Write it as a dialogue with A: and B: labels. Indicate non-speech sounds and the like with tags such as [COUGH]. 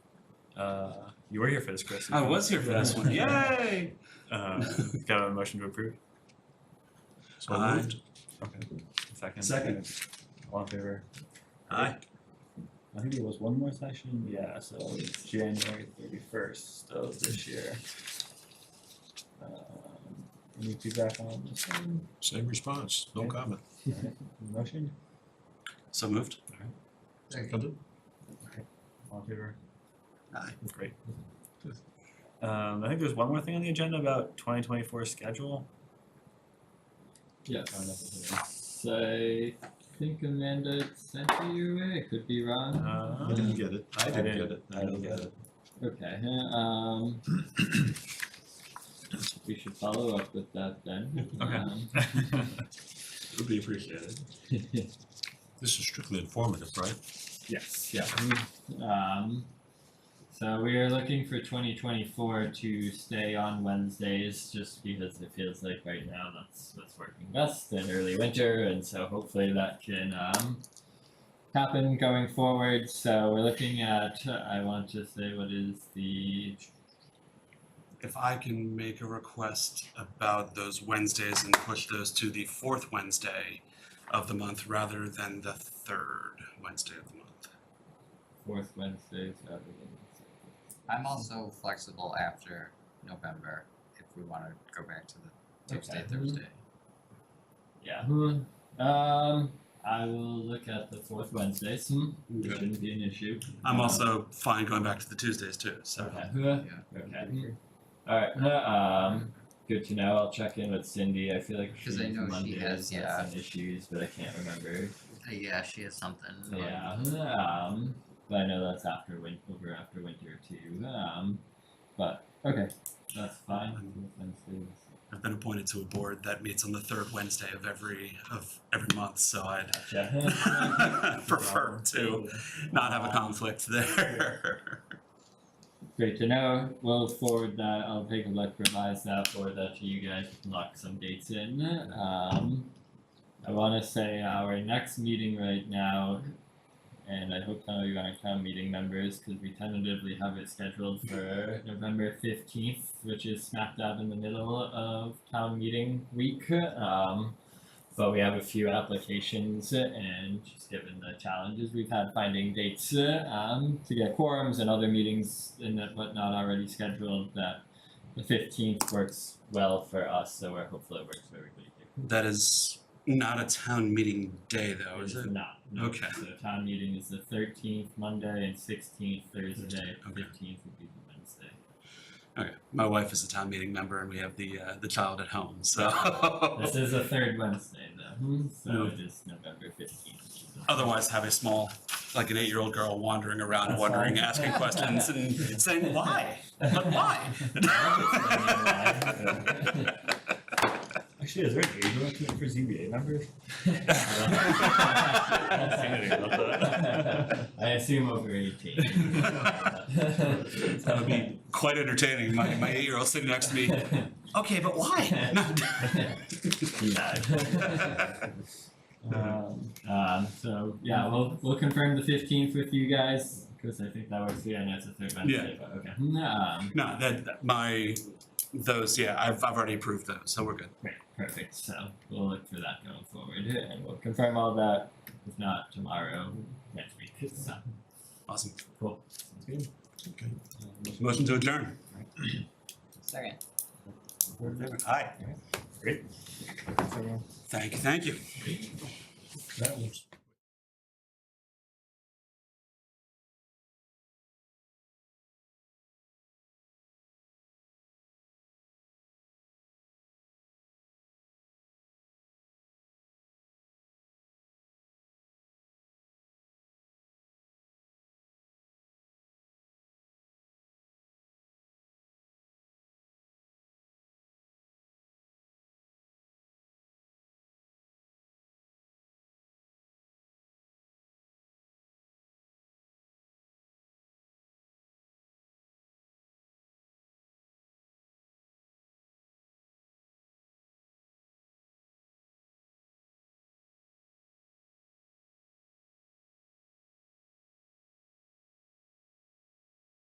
A: Uh, you were here for this, Chris.
B: I was here for this
A: [LAUGHS]
B: one. Yay!
A: Uh, got a motion to approve.
C: So
B: Aye.
C: moved.
A: Second.
B: Second.
A: All in favor?
B: Aye.
A: I think there was one more session. Yeah, so it's January thirty first of this year. Um, any feedback on this one?
C: Same response, no
A: Yeah.
C: comment.
A: Alright, Motion?
B: So moved.
C: Seconded.
A: All in favor?
B: Aye.
A: Great. Um, I think there's one more thing on the agenda about twenty twenty four [LAUGHS] schedule. Oh,
D: Yes.
A: nothing.
D: I think Amanda sent it your way. I could be wrong.
A: Uh,
C: I didn't get it.
A: I
C: I didn't
A: didn't-
C: get it.
A: I didn't get it.
D: Okay. huh, Um, [CLEARS THROAT] we should follow up with that then.
A: Okay.
D: Um,
C: It would be appreciated.
D: [LAUGHS]
C: This is strictly informative, right?
D: yes. Yeah. we- Um, so we are looking for 2024 to stay on Wednesdays, just because it feels like right now that's what's working best in early winter, and so hopefully that can um, happen going forward. So we're looking at, I want to say, what is the
E: if I can make a request about those Wednesdays and push those to the fourth Wednesday of the month rather than the third Wednesday of the month.
D: fourth Wednesday? So
F: I'm also flexible after November if we wanna go back to the Tuesday,
D: Okay.
F: Thursday.
D: yeah. hmm, Um, I will look at the fourth Wednesdays. Hmm.
E: I'm
D: It
E: good.
D: shouldn't be an issue.
E: I'm also fine going back to the Tuesdays too, so.
D: Okay. huh, Okay. All right. Um, good to know. I'll check in with Cindy. I feel like she
F: 'Cause I
D: needs
F: know she
D: Mondays
F: has,
D: has
F: yeah.
D: some issues, but I can't remember.
F: Uh, Yeah, she has something.
D: So, Yeah. Um, but I know that's after win- over after winter too. Um, but okay, that's fine.
F: Mm-hmm.
D: Fourth Wednesdays.
E: I've been appointed to a board that meets on the third Wednesday of every, of every month, so I'd [LAUGHS]
D: Gotcha.
E: prefer to not have a conflict there.
D: Great to know. We'll forward that. I'll take a look, revise that, forward that to you guys, lock some dates in. Um, I want to say our next meeting right now, and I hope some of you aren't town meeting members, because we tentatively have it scheduled for November 15th, which is smack dab in the middle of town meeting week. Um, but we have a few applications uh, and just given the challenges we've had finding dates uh, um, to get quorums and other meetings and that whatnot already scheduled that the fifteenth works well for us, so we're hopeful it works for everybody here.
E: That is not a town meeting day though, is
D: It's
E: it?
D: Not, no,
E: Okay.
D: so town meeting is the thirteenth Monday and sixteenth Thursday,
E: okay.
D: fifteenth would be the Wednesday.
E: Okay, my wife is a town meeting member and we have the, uh, the child at home, so. [LAUGHS] Oh.
D: This is the third Wednesday though, so
E: Mm.
D: it is November fifteenth.
E: otherwise have a small, like an eight-year-old girl wandering around,
D: That's
E: wondering,
D: fine.
E: asking questions and [LAUGHS] saying, why? [LAUGHS] But
D: [LAUGHS]
E: why? [LAUGHS]
A: Actually, is there an age limit for ZBA members?
D: I assume over [LAUGHS] eighteen.
E: That would be quite entertaining, my, my eight-year-old sitting next to me, okay, but [LAUGHS] why?
A: Um,
D: Um, so yeah, we'll we'll confirm the fifteenth with you guys because I think that works. Yeah, and that's a third Wednesday, but okay. Um,
E: [LAUGHS] No, that, that- my, those, yeah, I've, I've already approved those, so we're good.
D: great, perfect. So we'll look for that going forward, and we'll confirm all that. If not tomorrow, next week. So
E: Awesome.
D: cool.
C: Okay.
E: Motion to adjourn.
F: Second.
E: Aye.
A: great. Thanks, everyone.
E: Thank you, thank you.
C: That was.